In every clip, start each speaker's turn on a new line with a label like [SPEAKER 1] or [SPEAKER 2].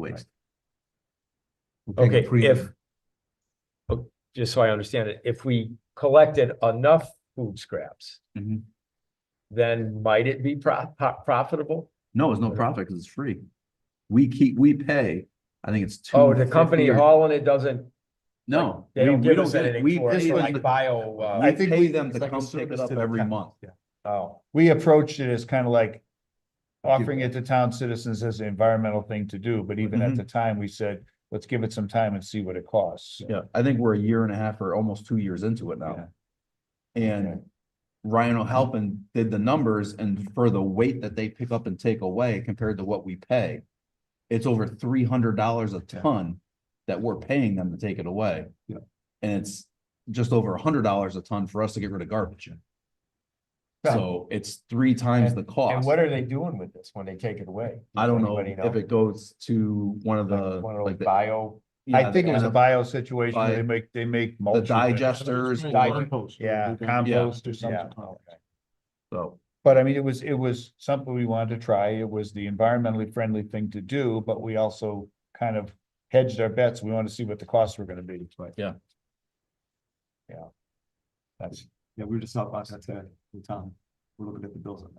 [SPEAKER 1] waste.
[SPEAKER 2] We'll take a
[SPEAKER 3] Okay, if.
[SPEAKER 2] premium.
[SPEAKER 3] oh, Just so I understand it, if we collected enough food scraps,
[SPEAKER 1] Mhm.
[SPEAKER 3] then might it be pro- po- profitable?
[SPEAKER 1] No, it's no profit because it's free. We keep, we pay, I think it's two.
[SPEAKER 3] Oh, the company
[SPEAKER 1] fifty or-
[SPEAKER 3] hauling it doesn't,
[SPEAKER 1] No.
[SPEAKER 3] they
[SPEAKER 1] we-
[SPEAKER 3] don't
[SPEAKER 1] we
[SPEAKER 3] give us
[SPEAKER 1] get it.
[SPEAKER 3] anything
[SPEAKER 1] We
[SPEAKER 3] for it,
[SPEAKER 1] pay
[SPEAKER 3] so
[SPEAKER 1] them
[SPEAKER 3] like
[SPEAKER 1] to-
[SPEAKER 3] bio, uh,
[SPEAKER 2] I
[SPEAKER 1] we
[SPEAKER 2] think
[SPEAKER 1] pay
[SPEAKER 2] we-
[SPEAKER 1] them to
[SPEAKER 2] it's like a
[SPEAKER 1] come pick
[SPEAKER 2] service
[SPEAKER 1] it up
[SPEAKER 2] to the
[SPEAKER 1] every
[SPEAKER 2] town.
[SPEAKER 1] month.
[SPEAKER 2] Yeah.
[SPEAKER 3] oh,
[SPEAKER 4] we approached it as kind of like offering it to town citizens as an environmental thing to do, but even
[SPEAKER 1] Mhm.
[SPEAKER 4] at the time, we said, let's give it some time and see what it costs.
[SPEAKER 1] Yeah, I think we're a year and a half or almost two years into it now. And Ryan O'Halpin did the numbers and for the weight that they pick up and take away compared to what we pay. It's over three hundred dollars a ton that we're paying them to take it away.
[SPEAKER 2] Yeah.
[SPEAKER 1] And it's just over a hundred dollars a ton for us to get rid of garbage.
[SPEAKER 4] Yeah.
[SPEAKER 1] So it's three times the
[SPEAKER 3] and
[SPEAKER 1] cost.
[SPEAKER 3] what are they doing with this when they take it away?
[SPEAKER 1] I
[SPEAKER 3] Does
[SPEAKER 1] don't know
[SPEAKER 3] anybody
[SPEAKER 1] if it goes to one of the,
[SPEAKER 3] One of
[SPEAKER 1] like
[SPEAKER 3] those
[SPEAKER 1] the.
[SPEAKER 3] bio,
[SPEAKER 4] I think it was a
[SPEAKER 1] Yeah,
[SPEAKER 4] bio situation.
[SPEAKER 1] Bi-
[SPEAKER 4] They make, they make.
[SPEAKER 1] The
[SPEAKER 4] mulch of it.
[SPEAKER 1] digesters, or-
[SPEAKER 2] Compost.
[SPEAKER 4] Yeah, compost or something.
[SPEAKER 3] Yeah.
[SPEAKER 1] so,
[SPEAKER 4] But I mean, it was, it was something we wanted to try. It was the environmentally friendly thing to do, but we also kind of hedged our bets. We wanted to see what the costs were gonna be, but.
[SPEAKER 1] Yeah.
[SPEAKER 4] Yeah. That's,
[SPEAKER 2] Yeah, we were just out last night today in town. We're looking at the bills on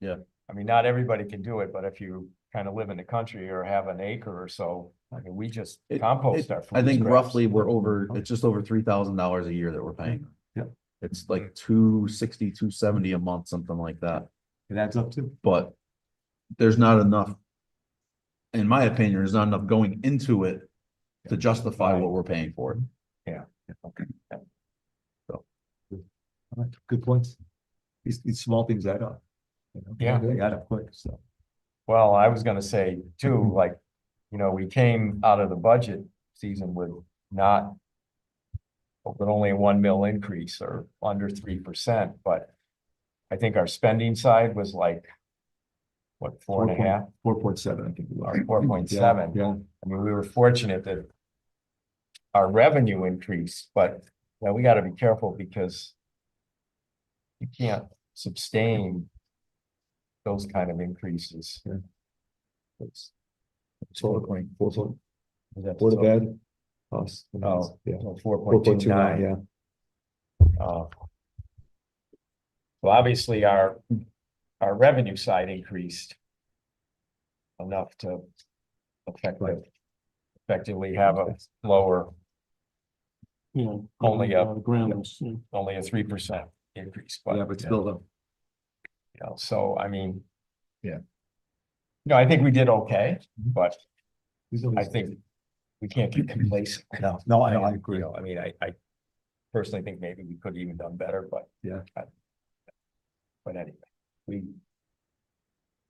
[SPEAKER 2] that.
[SPEAKER 3] I mean, not everybody can do it, but if you kind of live in the country or have an acre or so, I mean, we just
[SPEAKER 1] It-
[SPEAKER 3] compost
[SPEAKER 1] it-
[SPEAKER 3] our food.
[SPEAKER 1] I think
[SPEAKER 3] scraps.
[SPEAKER 1] roughly we're over, it's just over three thousand dollars a year that we're paying.
[SPEAKER 2] Yeah.
[SPEAKER 1] It's like two sixty, two seventy a month, something like that,
[SPEAKER 2] It adds up to.
[SPEAKER 1] but there's not enough. In my opinion, there's not enough going into it to justify what we're paying for. it.
[SPEAKER 2] All right, Good points. These, these small things add up. you know?
[SPEAKER 3] Yeah.
[SPEAKER 2] They add up quick, so.
[SPEAKER 3] Well, I was gonna say too, like, you know, we came out of the budget season with not. With only a one mil increase or under three percent, but I think our spending side was like. What, four and a half?
[SPEAKER 2] Four point seven, I think. we are.
[SPEAKER 3] Or 4.7.
[SPEAKER 2] Yeah,
[SPEAKER 3] I mean, we were fortunate that. Our revenue increased, but now we gotta be careful because. You can't sustain. Those kind of increases.
[SPEAKER 2] Yeah.
[SPEAKER 3] It's-
[SPEAKER 2] Total point, four point,
[SPEAKER 3] is that-
[SPEAKER 2] Board of Ed. Us. and us,
[SPEAKER 3] Oh,
[SPEAKER 2] Yeah.
[SPEAKER 3] Four
[SPEAKER 2] Four
[SPEAKER 3] point
[SPEAKER 2] point two nine, yeah.
[SPEAKER 3] Uh, Well, obviously, our, our revenue side increased enough to effectively, effectively have a lower,
[SPEAKER 5] Yeah.
[SPEAKER 3] Only
[SPEAKER 5] uh,
[SPEAKER 3] up.
[SPEAKER 5] Grounds, yeah.
[SPEAKER 3] only a three percent increase, but,
[SPEAKER 2] Yeah,
[SPEAKER 3] you
[SPEAKER 2] but still
[SPEAKER 1] um,
[SPEAKER 2] though.
[SPEAKER 3] know, so, I mean.
[SPEAKER 4] Yeah.
[SPEAKER 3] No, I think we did okay,
[SPEAKER 2] Mm-hmm.
[SPEAKER 3] but
[SPEAKER 2] these are-
[SPEAKER 3] I think we can't get complacent.
[SPEAKER 2] No, no, I, I
[SPEAKER 3] You
[SPEAKER 2] agree.
[SPEAKER 3] know, I mean, I, I personally think maybe we could have even done better, but.
[SPEAKER 2] Yeah.
[SPEAKER 3] I- But anyway, we.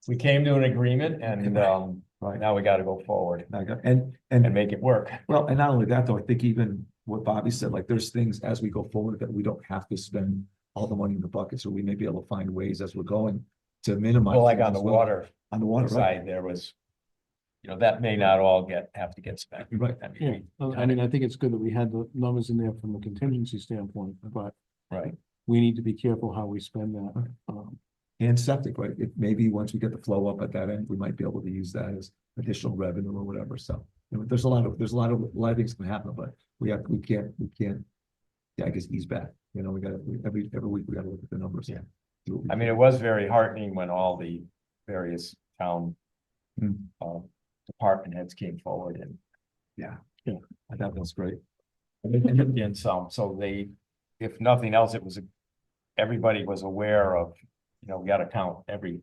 [SPEAKER 3] We came to an agreement and, um,
[SPEAKER 2] Right.
[SPEAKER 3] now we gotta go forward
[SPEAKER 2] I got- And,
[SPEAKER 3] and
[SPEAKER 2] and,
[SPEAKER 3] make it work.
[SPEAKER 2] well, and not only that, though, I think even what Bobby said, like, there's things as we go forward that we don't have to spend all the money in the bucket, so we may be able to find ways as we're going to minimize.
[SPEAKER 3] Well, like
[SPEAKER 2] things
[SPEAKER 3] on the
[SPEAKER 2] as well.
[SPEAKER 3] water
[SPEAKER 2] On the water, right,
[SPEAKER 3] side, there was. You know, that may not all get, have to get spent.
[SPEAKER 2] right.
[SPEAKER 3] I mean,
[SPEAKER 5] Yeah,
[SPEAKER 3] we-
[SPEAKER 5] Uh, I mean, I think it's good that we had the numbers in there from a contingency standpoint, but
[SPEAKER 3] Right.
[SPEAKER 5] we need to be careful how we spend that. Um,
[SPEAKER 2] And septic, right, it maybe once we get the flow up at that end, we might be able to use that as additional revenue or whatever, so. you know, there's a lot of, there's a lot of, a lot of things can happen, but we have, we can't, we can't. Yeah, I guess ease back, you know, we gotta, we- every, every week, we gotta look at the numbers.
[SPEAKER 3] Yeah.
[SPEAKER 2] Do what we
[SPEAKER 3] I mean,
[SPEAKER 2] can.
[SPEAKER 3] it was very heartening when all the various town.
[SPEAKER 2] Hmm.
[SPEAKER 3] um, department heads came forward and
[SPEAKER 2] That was great.
[SPEAKER 3] And some, so they, if nothing else, it was, a- everybody was aware of, you know, we gotta count every,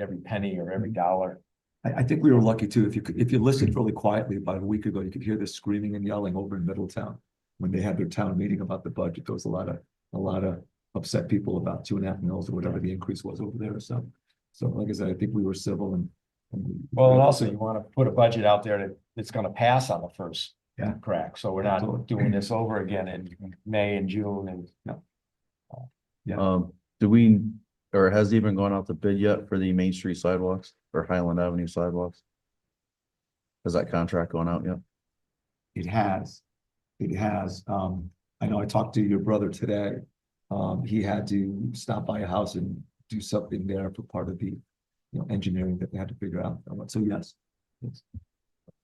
[SPEAKER 3] every penny or every
[SPEAKER 2] Hmm.
[SPEAKER 3] dollar.
[SPEAKER 2] I, I think we were lucky too. If you, could- if you listened really quietly about a week ago, you could hear the screaming and yelling over in Middletown. When they had their town meeting about the budget, there was a lot of, a lot of upset people about two and a half mils or whatever the increase was over there, so. So like I said, I think we were civil and. and we-
[SPEAKER 3] Well, and also you wanna put a budget out there that, that's gonna pass on the first
[SPEAKER 2] Yeah.
[SPEAKER 3] crack, so we're
[SPEAKER 2] Absolutely.
[SPEAKER 3] not doing this over again in May and June and.
[SPEAKER 2] Yeah.
[SPEAKER 1] Um, do we, or has it even gone out to bid yet for the Main Street sidewalks or Highland Avenue sidewalks? Has that contract gone out yet?
[SPEAKER 2] It has, it has, um, I know I talked to your brother today. Um, he had to stop by a house and do something there for part of the, you know, engineering that they had to figure out, so yes. yes.